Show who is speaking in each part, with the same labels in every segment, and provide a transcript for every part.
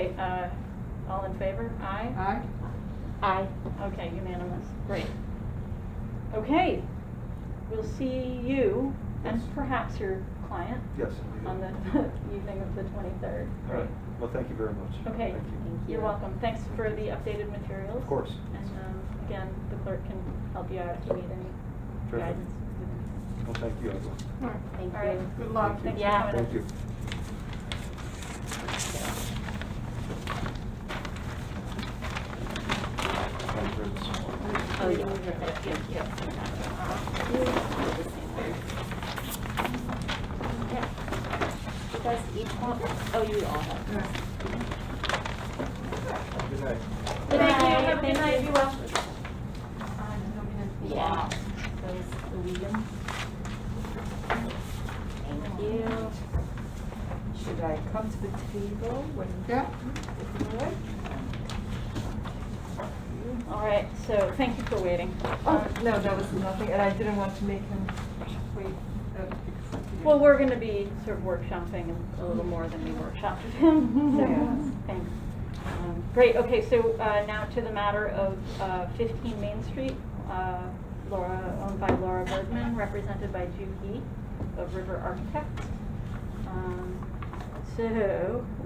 Speaker 1: Uh, All in favor? Aye?
Speaker 2: Aye.
Speaker 3: Aye.
Speaker 1: Okay, unanimous, great. Okay, we'll see you and
Speaker 4: Yes.
Speaker 1: perhaps your client
Speaker 4: Yes.
Speaker 1: on the evening of the 23rd.
Speaker 4: All right, well, thank you very much.
Speaker 1: Okay,
Speaker 4: Thank you.
Speaker 3: Thank
Speaker 1: you're
Speaker 3: you.
Speaker 1: welcome. Thanks for the updated materials.
Speaker 4: Of course.
Speaker 1: And um, again, the clerk can help you out if you need any
Speaker 4: Terrific.
Speaker 1: guidance.
Speaker 4: Well, thank you, everyone.
Speaker 3: Thank
Speaker 1: All right.
Speaker 3: you.
Speaker 2: Good luck.
Speaker 1: Thanks for
Speaker 3: Yeah.
Speaker 1: coming in.
Speaker 4: Thank you. Thank you.
Speaker 3: Oh, yeah. Thank you. Yeah. You guys each want, oh, you all have.
Speaker 4: Good night.
Speaker 3: Good
Speaker 1: Thank you.
Speaker 3: night.
Speaker 1: Have a good night.
Speaker 3: Thank
Speaker 1: Be
Speaker 3: you.
Speaker 1: well.
Speaker 3: Yeah. Those, the William. Thank you.
Speaker 5: Should I come to the table when
Speaker 2: Yeah.
Speaker 5: you do it?
Speaker 1: All right, so thank you for waiting.
Speaker 5: Oh,
Speaker 1: Um,
Speaker 5: no, that was nothing, and I didn't want to make him wait. uh, because he-
Speaker 1: Well, we're gonna be sort of workshopping a little more than we workshopped with him, so,
Speaker 5: Yes.
Speaker 1: thanks. Um, Great, okay, so uh, now to the matter of uh, 15 Main Street, uh, Laura, owned by Laura Bergman, represented by Ju He of River Architects. Um, So,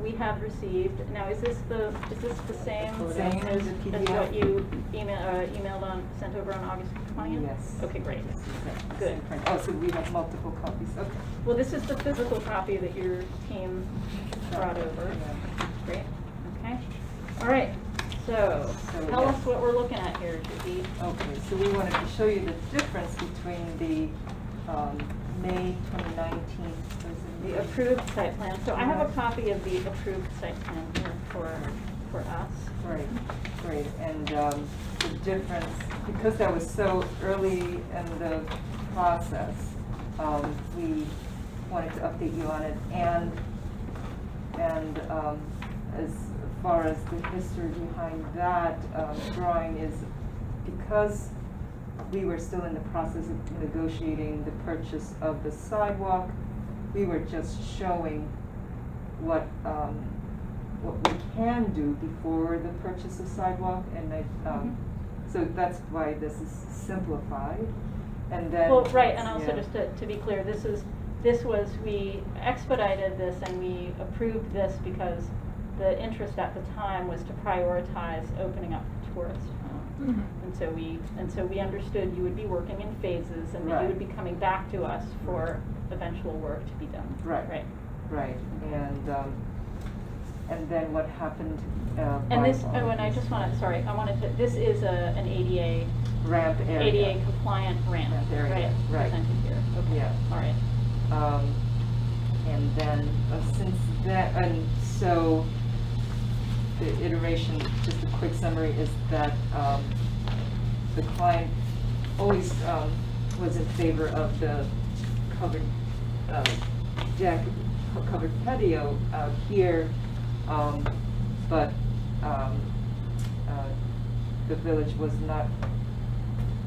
Speaker 1: we have received, now is this the, is this the same
Speaker 5: Same
Speaker 1: as
Speaker 5: as
Speaker 1: as
Speaker 5: the
Speaker 1: what
Speaker 5: PDF?
Speaker 1: you email- uh, emailed on, sent over on August 20th?
Speaker 5: Yes.
Speaker 1: Okay, great.
Speaker 5: Yes, exactly.
Speaker 1: Good.
Speaker 5: Oh, so we have multiple copies, okay.
Speaker 1: Well, this is the physical copy that your team brought over.
Speaker 5: Yeah.
Speaker 1: Great, okay. All right, so
Speaker 5: So,
Speaker 1: tell
Speaker 5: yeah.
Speaker 1: us what we're looking at here, Judy.
Speaker 5: Okay, so we wanted to show you the difference between the, um, May twenty nineteen,
Speaker 1: The approved site plan. So I have a copy of the approved site plan here for, for us.
Speaker 5: Right, right, and um, the difference, because that was so early in the process, um, we wanted to update you on it, and, and um, as far as the history behind that um, drawing is, because we were still in the process of negotiating the purchase of the sidewalk, we were just showing what, um, what we can do before the purchase of sidewalk, and I, um,
Speaker 1: Mm-hmm.
Speaker 5: so that's why this is simplified, and then.
Speaker 1: Well, right, and also
Speaker 5: yeah.
Speaker 1: just to, to be clear, this is, this was, we expedited this and we approved this because the interest at the time was to prioritize opening up tourist homes. And so we, and so we understood you would be working in phases and that you would be
Speaker 5: Right.
Speaker 1: coming back to us for eventual work to be done.
Speaker 5: Right.
Speaker 1: Right.
Speaker 5: Right, and, um, and then what happened, uh.
Speaker 1: And
Speaker 5: by-
Speaker 1: this, oh, and I just wanna, sorry, I wanted to, this is a, an ADA,
Speaker 5: Ramp area.
Speaker 1: ADA compliant ramp,
Speaker 5: Ramp area,
Speaker 1: right,
Speaker 5: right.
Speaker 1: presented here, okay,
Speaker 5: Yeah.
Speaker 1: all right.
Speaker 5: Um, and then, uh, since that, and so, the iteration, just a quick summary, is that, um, the client always, um, was in favor of the covered, uh, deck, co- covered patio out here, um, but, um, uh, the village was not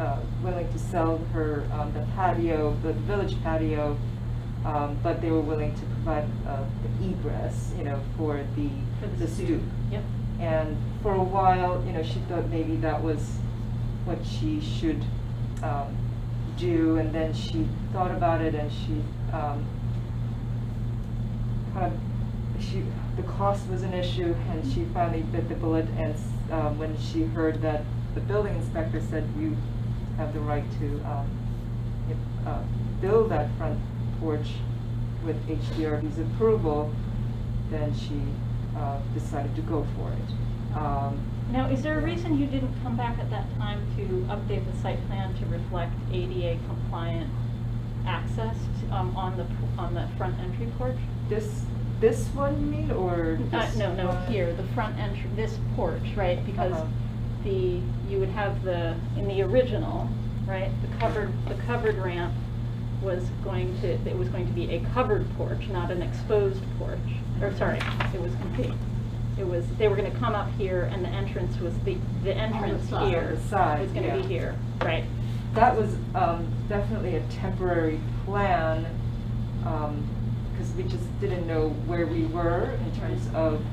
Speaker 5: uh, willing to sell her um, the patio, the village patio, um, but they were willing to provide uh, the egress, you know, for the,
Speaker 1: For the
Speaker 5: the stoop.
Speaker 1: Yep,
Speaker 5: And for a while, you know, she thought maybe that was what she should um, do, and then she thought about it and she um, kind of, she, the cost was an issue, and she finally bit the bullet, and um, when she heard that the building inspector said you have the right to um, if, uh, build that front porch with HDRB's approval, then she uh, decided to go for it. Um,
Speaker 1: now, is there a reason you didn't come back at that time to update the site plan to reflect ADA compliant access, to- um, on the, on the front entry porch?
Speaker 5: This, this one you mean, or
Speaker 1: Uh,
Speaker 5: this
Speaker 1: no, no,
Speaker 5: one?
Speaker 1: here, the front entry, this porch, right, because
Speaker 5: Uh-huh.
Speaker 1: the, you would have the, in the original, right, the covered, the covered ramp was going to, it was going to be a covered porch, not an exposed porch, or sorry, it was complete. It was, they were gonna come up here and the entrance was the, the entrance
Speaker 5: side.
Speaker 1: here.
Speaker 5: On the side,
Speaker 1: Was gonna
Speaker 5: yeah.
Speaker 1: be here, right,
Speaker 5: That was um, definitely a temporary um, plan, because we just didn't know where we were in terms of